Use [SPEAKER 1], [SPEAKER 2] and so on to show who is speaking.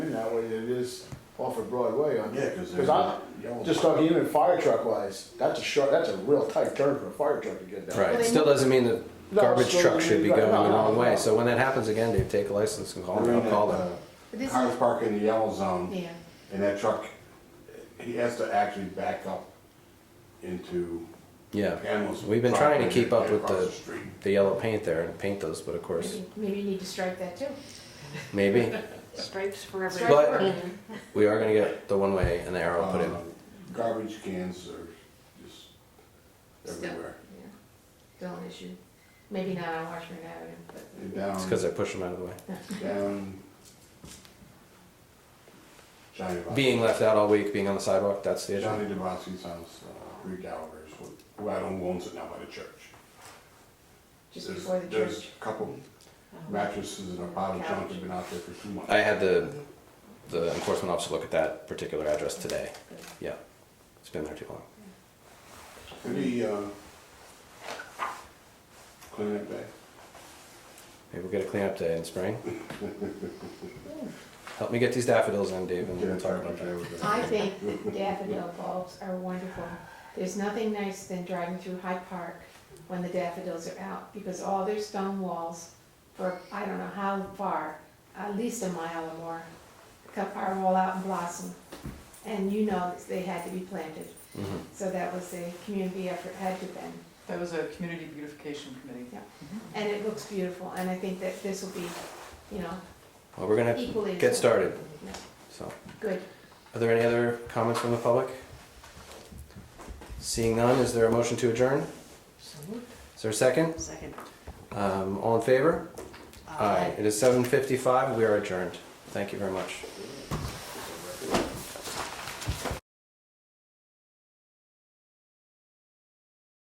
[SPEAKER 1] it is off of Broadway on.
[SPEAKER 2] Yeah, 'cause
[SPEAKER 1] Cause
[SPEAKER 2] there's
[SPEAKER 1] I,
[SPEAKER 2] yellow-
[SPEAKER 1] just talking even fire truck wise, that's a short, that's a real tight turn for a fire truck to get down.
[SPEAKER 3] Right, it still doesn't mean the
[SPEAKER 1] No,
[SPEAKER 3] garbage
[SPEAKER 1] still
[SPEAKER 3] truck should be
[SPEAKER 1] doesn't mean-
[SPEAKER 3] going
[SPEAKER 1] right,
[SPEAKER 3] the
[SPEAKER 1] no,
[SPEAKER 3] wrong
[SPEAKER 1] no, no.
[SPEAKER 3] way, so when that happens again, Dave, take a license and call
[SPEAKER 2] We're
[SPEAKER 3] them,
[SPEAKER 2] in
[SPEAKER 3] call
[SPEAKER 2] that,
[SPEAKER 3] them.
[SPEAKER 2] uh,
[SPEAKER 4] This
[SPEAKER 2] Cars
[SPEAKER 4] is,
[SPEAKER 2] park in the yellow zone,
[SPEAKER 4] yeah,
[SPEAKER 2] and that truck, he has to actually back up into
[SPEAKER 3] Yeah,
[SPEAKER 2] Pamela's.
[SPEAKER 3] we've been trying to
[SPEAKER 2] property
[SPEAKER 3] keep up with
[SPEAKER 2] across
[SPEAKER 3] the,
[SPEAKER 2] street.
[SPEAKER 3] the yellow paint there and paint those, but of course,
[SPEAKER 4] maybe, maybe you need to strike that too.
[SPEAKER 3] maybe.
[SPEAKER 5] Stripes for
[SPEAKER 4] Strike
[SPEAKER 5] everyone.
[SPEAKER 3] But-
[SPEAKER 4] work.
[SPEAKER 3] We are gonna get the one way and the arrow put in.
[SPEAKER 2] Uh, Garbage cans are just
[SPEAKER 4] Still.
[SPEAKER 2] everywhere.
[SPEAKER 4] Yeah. Still an issue. Maybe not on Washburn Avenue, but.
[SPEAKER 2] And
[SPEAKER 3] It's cause
[SPEAKER 2] Down,
[SPEAKER 3] I push them out of the way.
[SPEAKER 2] down. Johnny Devos-
[SPEAKER 3] Being left out all week, being on the sidewalk, that's the issue.
[SPEAKER 2] Johnny DeBoski's house, uh, Three Gallagher's, who- who I don't owns it now by the church.
[SPEAKER 4] Just
[SPEAKER 2] There's-
[SPEAKER 4] before the
[SPEAKER 2] There's
[SPEAKER 4] church. Uh-huh.
[SPEAKER 2] a couple mattresses and a pile of junk have been out there for two months.
[SPEAKER 3] I had the, the enforcement officer look at that particular address today. Yeah, it's been there too long.
[SPEAKER 2] Could he, uh, clean it back?
[SPEAKER 3] Maybe we'll get a cleanup day in spring. Help me get these daffodils in, Dave, and we'll talk about that.
[SPEAKER 4] I think daffodil bulbs are wonderful. There's nothing nice than driving through Hyde Park when the daffodils are out, because all their stone walls for, I don't know how far, at least a mile or more, cut- are all out and blossom. And you know that they had to be planted,
[SPEAKER 3] Mhm.
[SPEAKER 4] so that was a community effort, had to been.
[SPEAKER 6] That was a community beautification committee.
[SPEAKER 4] And it looks beautiful, and I think that this will be, you know,
[SPEAKER 3] Well, we're gonna
[SPEAKER 4] equally.
[SPEAKER 3] get started,
[SPEAKER 4] Yeah,
[SPEAKER 3] so.
[SPEAKER 4] Good.
[SPEAKER 3] Are there any other comments from the public? Seeing none, is there a motion to adjourn? Is there a second?
[SPEAKER 5] Second.
[SPEAKER 3] Um, all in favor? It is seven fifty-five, we are adjourned. Thank you very much.
[SPEAKER 5] Aye.